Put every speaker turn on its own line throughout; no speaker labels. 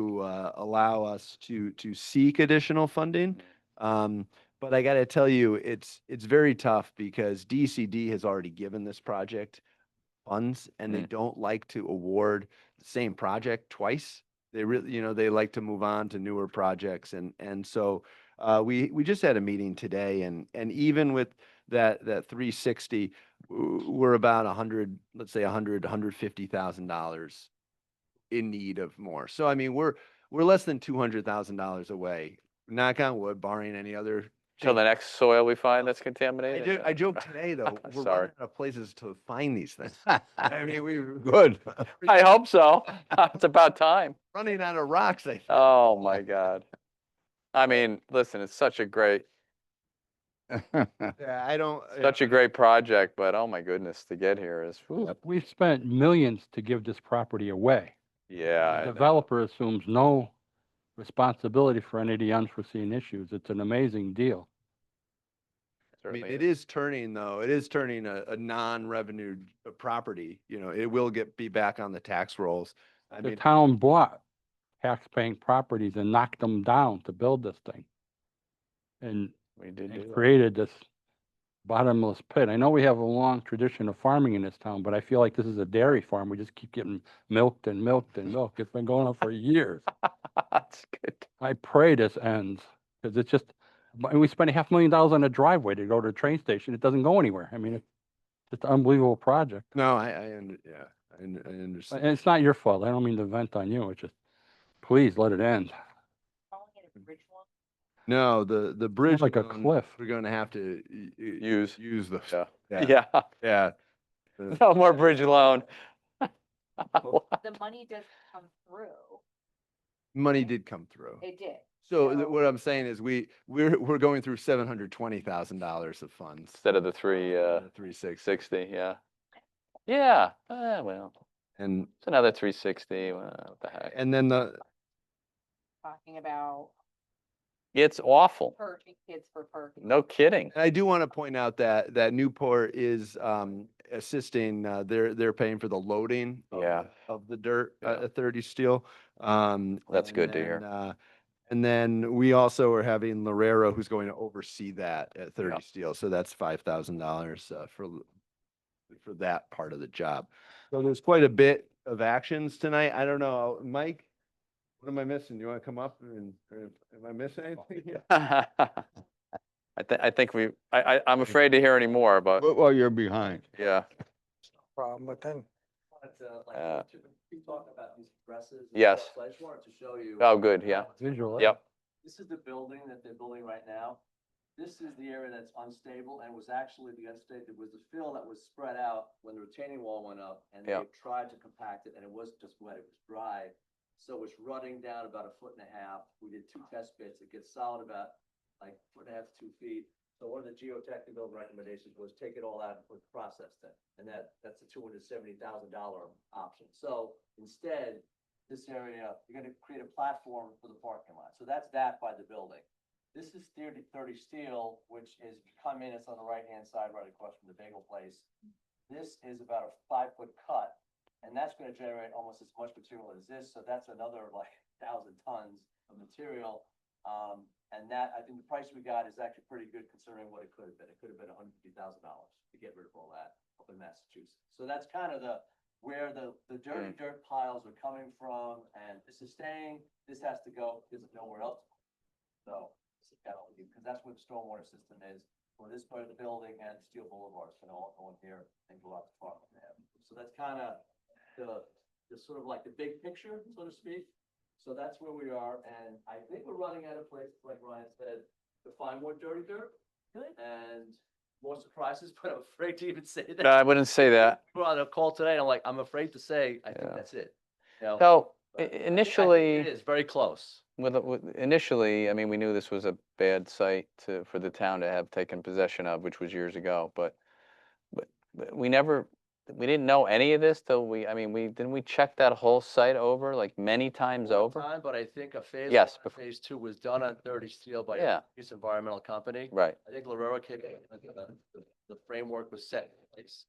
to uh, allow us to, to seek additional funding. Um, But I got to tell you, it's, it's very tough because DCD has already given this project funds and they don't like to award the same project twice. They really, you know, they like to move on to newer projects. And, and so uh, we, we just had a meeting today and, and even with that, that 360, w- we're about 100, let's say 100, 150,000 dollars in need of more. So I mean, we're, we're less than two hundred thousand dollars away, knock on wood, barring any other.
Till the
change.
next soil we find that's
I
contaminated?
do, I joke today, though, we're
Sorry.
running out of places to find these things. I mean, we. Good.
I hope so. It's about time.
Running out of rocks, I think.
Oh, my God. I mean, listen, it's such a great,
Yeah, I don't. yeah.
such a great project, but oh my goodness, to get here is, whew.
We've spent millions to give this property away. The
yeah. I know.
developer assumes no responsibility for any of the unforeseen issues. It's an amazing deal.
I mean,
certainly
it is turning, though, it is turning a, a non-revenue uh, property, you know, it will get, be back on the tax rolls. I
The
mean,
town bought tax-paying properties and knocked them down to build this thing. And
We did
and
do that.
created this bottomless pit. I know we have a long tradition of farming in this town, but I feel like this is a dairy farm. We just keep getting milked and milked and milked. It's been going on for years.
That's good.
I pray this ends, because it's just, but- and we spent a half million dollars on a driveway to go to a train station. It doesn't go anywhere. I mean, it's just an unbelievable project.
no, I, I, under- yeah, I, un- I
And
understand.
it's not your fault. I don't mean to vent on you. It's just, please let it end.
calling it a bridge loan?
No, the, the bridge.
like a
loan,
cliff.
We're gonna have to. y- y-
Use.
Use those.
Yeah.
Yeah,
Yeah,
yeah. The-
no more bridge loan.
The money does come through.
Money did come through.
It did.
So th-
so-
what I'm saying is we, we're, we're going through seven hundred twenty thousand dollars of funds.
Instead of the three, uh,
Three six,
sixty, yeah. Yeah, eh, well,
and,
it's another three sixty, what the heck?
and then the,
Talking about
It's awful.
purging kids for parking.
No kidding.
And I do want to point out that, that Newport is um, assisting, uh, they're, they're paying for the loading. of
Yeah.
the- Of the dirt, uh,
Yeah.
at thirty steel. Um,
That's
and
good to hear.
then, uh, And then we also are having Lorero who's going to oversee that at thirty steel. So that's five thousand dollars uh, for, l- for that part of the job. So there's quite a bit of actions tonight. I don't know, Mike, what am I missing? Do you want to come up and, or am I
Oh,
missing anything here?
I thi- I think we, I, I, I'm afraid to hear any more, but
Well, you're behind.
yeah,
problem, but then
wanted to, like,
Uh,
to- we talked about these addresses. and
Yes.
stuff, So I just wanted to show you.
oh, good, yeah.
Visual. eh?
Yep,
This is the building that they're building right now. This is the area that's unstable and was actually the unstable, it was the fill that was spread out when the retaining wall went up. And they
Yeah.
tried to compact it and it wasn't just wet, it was dry. So it's running down about a foot and a half. We did two test bits. It gets solid about like foot and a half to two feet. So one of the geotechnical recommendations was take it all out and put process it. And that, that's a two hundred seventy thousand dollar option. So instead, this area, you're gonna create a platform for the parking lot. So that's that by the building. This is thirty, thirty steel, which is if you come in, it's on the right-hand side, right across from the bagel place. This is about a five-foot cut, and that's gonna generate almost as much material as this, so that's another like thousand tons of material. Um, and that, I think the price we got is actually pretty good considering what it could have been. It could have been hundred fifty thousand dollars to get rid of all that up in Massachusetts. So that's kind of the, where the, the dirty dirt piles are coming from, and this is staying, this has to go, because there's nowhere else. So, because that's where the stormwater system is, for this part of the building and Steel Boulevard, can all go in here and go out to Park Avenue. So that's kind of the, the sort of like the big picture, so to speak. So that's where we are, and I think we're running out of places, like Ryan said, to find more dirty dirt. And more surprises, but I'm afraid to even say that.
no, I wouldn't say that.
We're on a call today, and I'm like, I'm afraid to say, I think
Yeah.
that's it. you know,
So i-
but I think- I think It
initially,
is very close.
with, with, initially, I mean, we knew this was a bad site to, for the town to have taken possession of, which was years ago, but, but, but we never, we didn't know any of this till we, I mean, we, didn't we check that whole site over, like, many times
one
over?
time, But I think a phase.
Yes,
one and Phase two was done on thirty steel by
Yeah.
a East Environmental Company.
Right,
I think Lorero came in, I think the, the- the framework was set in place.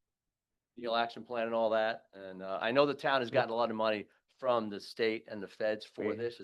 Deal action plan and all that, and, uh, I know the town has gotten a lot of money from the state and the feds for
We-
this,